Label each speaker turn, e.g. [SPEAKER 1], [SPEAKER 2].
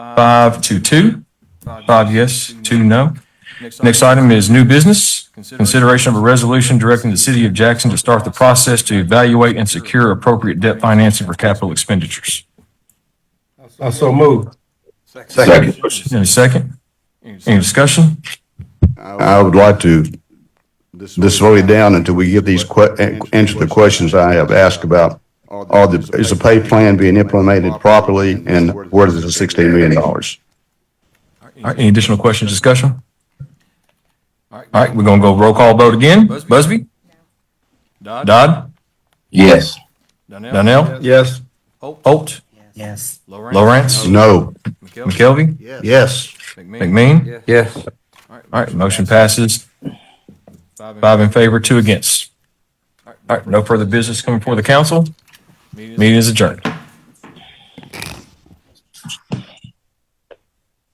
[SPEAKER 1] Five to two, five yes, two no. Next
[SPEAKER 2] Next item,
[SPEAKER 1] item is new business. Consideration of a resolution directing the city of Jackson to start the process to evaluate and secure appropriate debt financing for capital expenditures.
[SPEAKER 3] I so move.
[SPEAKER 4] Second.
[SPEAKER 1] Any second? Any discussion?
[SPEAKER 4] I would like to, this slow it down until we get these que, answer the questions I have asked about. Are the, is the pay plan being implemented properly and where is the sixteen million dollars?
[SPEAKER 1] All right, any additional questions, discussion?
[SPEAKER 2] All
[SPEAKER 1] All right, we're gonna go roll call vote again. Busby?
[SPEAKER 2] Dodd,
[SPEAKER 1] Dodd?
[SPEAKER 5] Yes.
[SPEAKER 2] Donnell,
[SPEAKER 1] Donnell?
[SPEAKER 3] Yes.
[SPEAKER 1] Holt?
[SPEAKER 5] Yes.
[SPEAKER 1] Lawrence?
[SPEAKER 2] Lawrence,
[SPEAKER 4] No.
[SPEAKER 2] McKelvey,
[SPEAKER 1] McKelvey?
[SPEAKER 4] Yes.
[SPEAKER 2] McMean.
[SPEAKER 1] McMean?
[SPEAKER 3] Yes.
[SPEAKER 1] All right, motion passes. Five in favor, two against. All right, no further business coming before the council.
[SPEAKER 2] Meeting is
[SPEAKER 1] Meeting is adjourned.